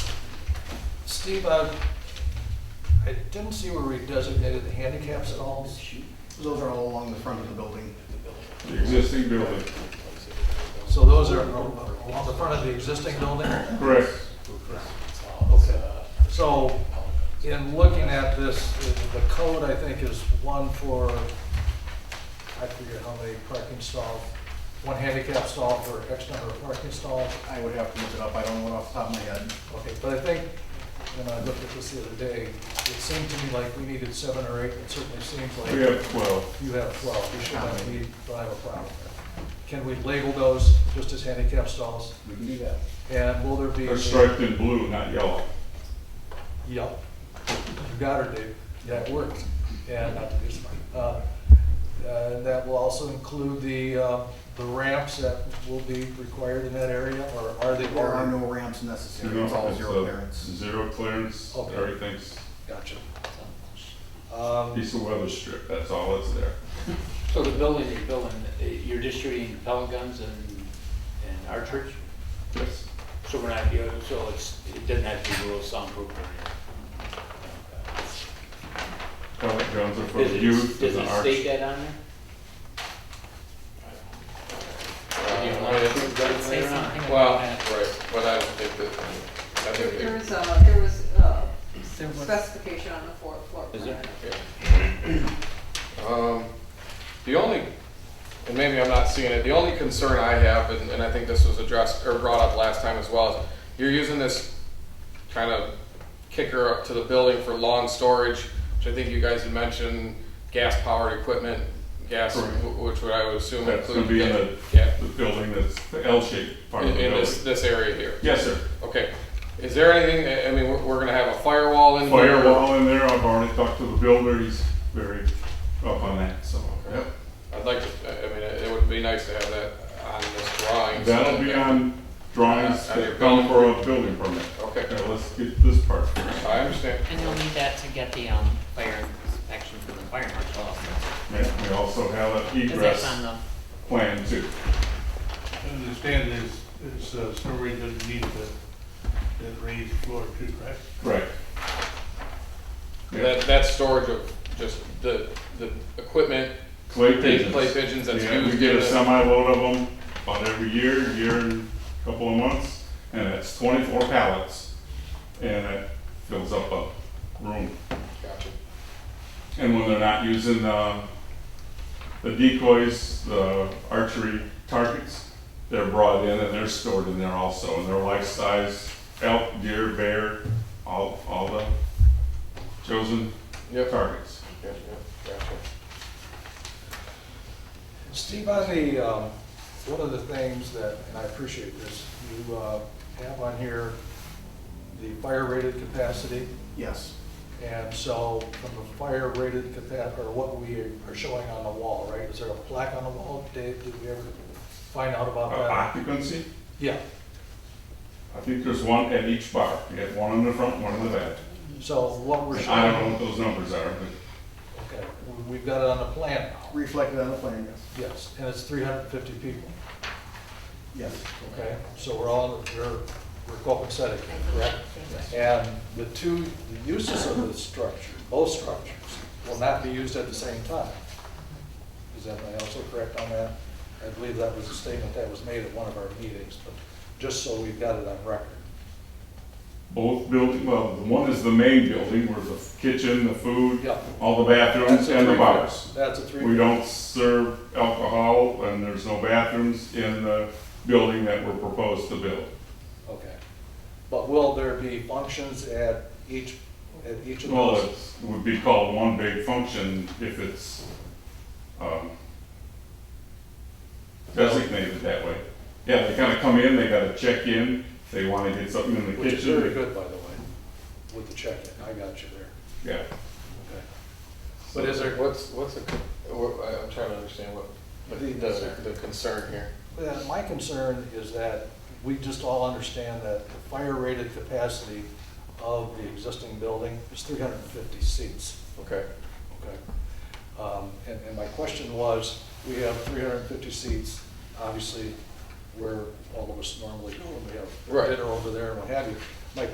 Steve, uh, I didn't see where we designated the handicaps at all. Those are all along the front of the building. The existing building, So those are along the front of the existing building? correct. Okay. So in looking at this, the code, I think, is one for, I forget how many parking stalls, one handicap stall for X number of parking stalls. I would have to look it up, I don't know it off the top of my head. Okay, but I think, when I looked at this the other day, it seemed to me like we needed seven or eight, it certainly seems like. We have twelve. You have twelve, you should have, we don't have a problem. Can we label those just as handicap stalls? We can do that. And will there be? They're striped in blue, not yellow. Yep. You got her, Dave. That worked. And, uh, uh, and that will also include the, uh, the ramps that will be required in that area, or are they? There are no ramps necessary, it's all zero a clearance. Zero clearance, Okay. everything's Gotcha. Um, piece of weather strip, that's all that's there. So the building you're building, eh, you're distributing pellet guns and, and archers? Yes. So we're not, you know, so it's, it doesn't have to be real soundproof or anything? Pellet guns are for Does the it- youth and Does the it arch. state that on there? Do you want to put guns Say Uh, there or not? something. Well, right, but I don't think that, I There think there it, was a, there was a There was- specification on the floor, floor Is plan. there? yeah. Um, the only, and maybe I'm not seeing it, the only concern I have, and, and I think this was addressed, or brought up last time as well, is you're using this kind of kicker up to the building for lawn storage, which I think you guys had mentioned, gas-powered equipment, gas, Correct. wh- which would I would assume That's gonna be in the, include, yeah, the building that's the L-shaped part in, of the in building. this, this area here. Yes, sir. Okay, is there anything, I- I mean, we're, we're gonna have a firewall in here? Firewall in there, I've already talked to the builder, he's very up on that, so, yep. I'd like to, I- I mean, it would be nice to have that on this drawing. so That'll be that- on drawings On your that come for a building permit. Okay. Now, let's get this part. I understand. And you'll need that to get the, um, fire inspection from the fire marshal also. Yeah, We also have an Cause that's on egress the, plan too. I understand there's, there's uh, some reason to need the, the raised floor too, right? Right. Yeah. That, that's storage of just the, the equipment, Clay Big pigeons. clay pigeons that's Yeah, We used get in a the- semi load of them about every year, year and a couple of months, and that's twenty-four pallets. And that fills up a room. gotcha, And when they're not using, uh, the decoys, the archery targets, they're brought in and they're stored in there also, and they're life size, elk, deer, bear, all, all the chosen Yep. targets. gotcha, gotcha. Steve, on the, um, one of the things that, and I appreciate this, you, uh, have on here the fire rated capacity. Yes, And so from the fire rated capa, or what we are showing on the wall, right? Is there a plaque on the wall, Dave? Did we ever find out about Uh, that? Occupancy, Yeah, I think there's one at each bar, you get one in the front, one in the back. so what we're showing. I don't know what those numbers are, but Okay, we- we've got it on the plan now, reflected on the plan, yes, and it's three hundred and fifty people, yes, yes. okay? So we're all, we're, we're copacetic, correct? And the two, the uses of the structure, both structures, will not be used at the same time. Is that, am I also correct on that? I believe that was a statement that was made at one of our meetings, but just so we've got it on record. both building, well, the one is the main building where the kitchen, the food, Yeah. all the bathrooms That's a and the three- bars. That's a three. We don't serve alcohol and there's no bathrooms in the building that we're proposed to build. Okay. But will there be functions at each, at each of Well, those? it would be called one big function if it's, um, designated that way. Yeah, they kinda come in, they gotta check in, if they wanna get something in the Which is very kitchen. good, by the way, with the check-in, I got you there. Yeah. But is there, what's, what's the, con- what- I- I'm trying to understand what, what the, the the concern here. Yeah, my concern is that we just all understand that the fire rated capacity of the existing building is three hundred and fifty seats, Okay, okay? Um, and, and my question was, we have three hundred and fifty seats, obviously, where all of us normally go, and we have Right. dinner over there and what have you.